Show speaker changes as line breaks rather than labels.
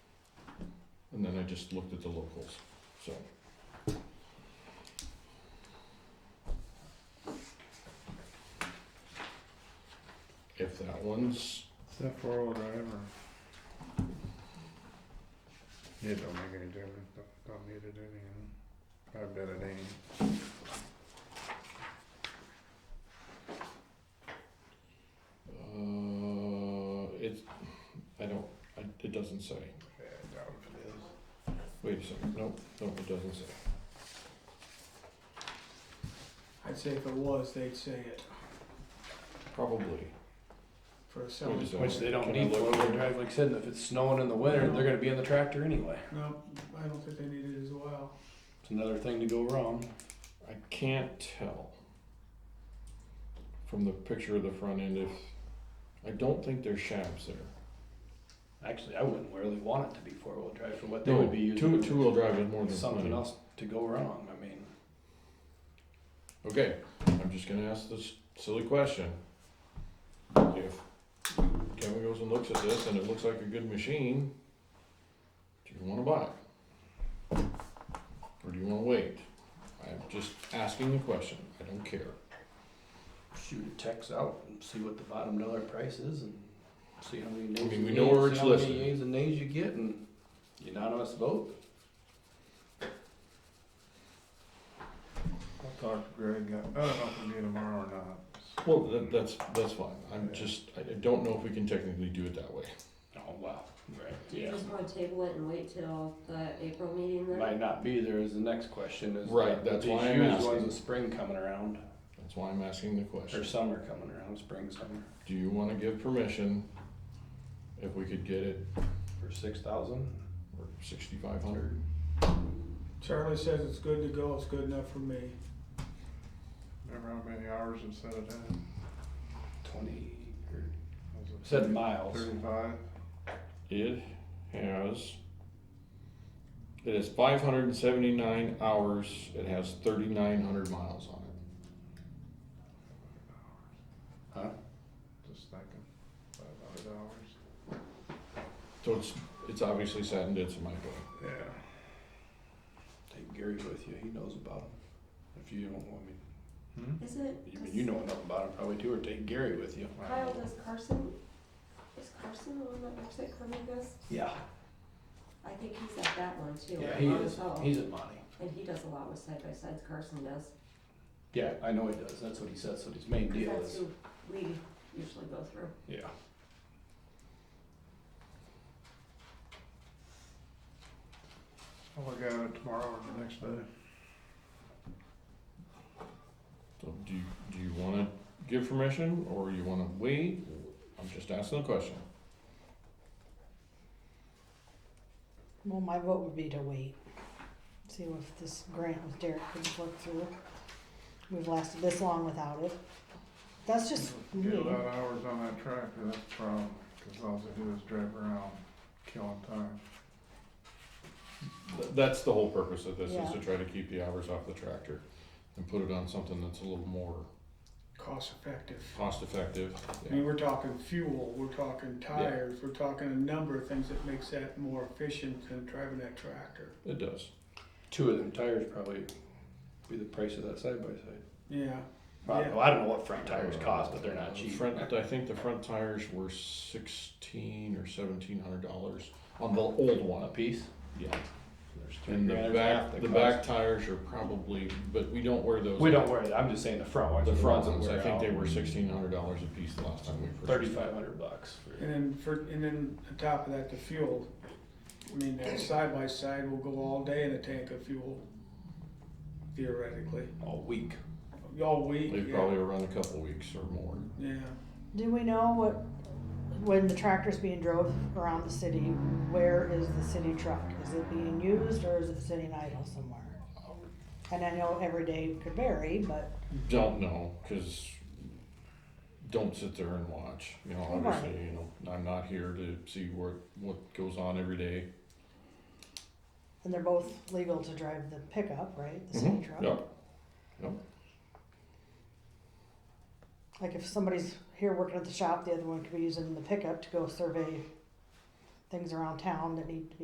and then I just looked at the locals, so. If that one's,
Is that four-wheel drive or? It don't make any difference, don't, don't need it anyhow. I bet it ain't.
uh, it's, I don't, I, it doesn't say.
Yeah, I doubt if it is.
Wait a second, nope, nope, it doesn't say.
I'd say if it was, they'd say it
Probably.
for a
Wait
selling.
a second.
Which they don't
Can I
need
look?
four-wheel drive, like I said, if it's snowing in the winter, they're gonna be in the tractor anyway.
No, I don't think they need it as well.
It's another thing to go wrong.
I can't tell from the picture of the front end if, I don't think there's shafts there.
Actually, I wouldn't really want it to be four-wheel drive for what they
No,
would be
Two,
using.
two-wheel drive is more than
Something
plenty.
else to go wrong, I mean,
Okay, I'm just gonna ask this silly question. If Kevin goes and looks at this and it looks like a good machine, do you wanna buy it? Or do you wanna wait? I'm just asking the question, I don't care.
shoot a text out and see what the bottom dollar price is and see how many nays.
I mean,
you
we
get,
know where
see
it's
how many
listed.
Yeas and nays you get and unanimous vote.
I'll talk to Greg, I don't know if we do tomorrow or not.
Well, that, that's, that's fine, I'm just, I I don't know if we can technically do it that way.
Oh, wow, right,
Do you
yeah.
just wanna table it and wait till the April meeting then?
Might not be there is the next question is.
Right,
that
that's
these
why I'm
used
asking.
Ones with spring coming around,
That's why I'm asking the
or
question.
summer coming around, spring, summer,
Do you wanna give permission if we could get it
for six thousand.
for sixty-five hundred?
Charlie says it's good to go, it's good enough for me.
Remember how many hours it set it in?
Twenty, or
Was it
said miles.
Thirty-five?
It has. It has 579 hours. It has 3,900 miles on it.
Huh?
Just thinking, five hundred hours.
So it's it's obviously sat in its micro.
Yeah.
Take Gary with you, he knows about them. If you don't want me,
Hmm?
Is it?
you mean, you know enough about them probably too, or take Gary with you.
Kyle, does Carson, is Carson the one that works at Carmigas?
Yeah.
I think he's at that one too.
Yeah,
at
he
Long
is,
Hill.
he's at Monty.
And he does a lot with side by sides, Carson does.
Yeah, I know he does, that's what he says, that's what his main
'Cause
deal
That's
is.
who we usually go through.
Yeah.
I'll look at it tomorrow or the next day.
So do you, do you want to give permission or you want to wait? I'm just asking a question.
Well, my vote would be to wait, see if this grant with Derek could work through. We've lasted this long without it. That's just
Get a
me.
lot of hours on that tractor, that's the problem, cause all they do is drive around, killing time.
Th- That's the whole purpose of this is to
Yeah.
try to keep the hours off the tractor and put it on something that's a little more
Cost effective.
cost effective.
I mean, we're talking fuel, we're talking tires, we're talking a number of things that makes that more efficient than driving that tractor.
It does.
Two of them tires probably be the price of that side by side.
Yeah,
I
Yeah.
don't know, I don't know what front tires cost, but they're not
The
cheap.
Uh, Front, I think the front tires were sixteen or seventeen hundred dollars on the old
A
one.
piece?
Yeah.
There's three
And the
grand, there's half
back, the back
cost.
tires are probably, but we don't wear those.
We don't wear that, I'm just saying the front ones.
The
are
front ones,
ones that
I
wear
think
out.
they were sixteen hundred dollars a piece the last time we purchased.
Thirty-five hundred bucks for,
and then for, and then on top of that, the fuel. I mean, that side by side will go all day in a tank of fuel theoretically,
a week.
all week,
They
yeah,
probably were around a couple weeks or more.
yeah.
Do we know what, when the tractor's being drove around the city, where is the city truck? Is it being used or is it sitting idle somewhere? And I know every day could vary, but
Don't know, cause don't sit there and watch, you know, obviously, you know, I'm not here to see what, what goes on every day.
and they're both legal to drive the pickup, right? The city
Mhm,
truck.
Yep.
Like if somebody's here working at the shop, the other one could be using the pickup to go survey things around town that need to be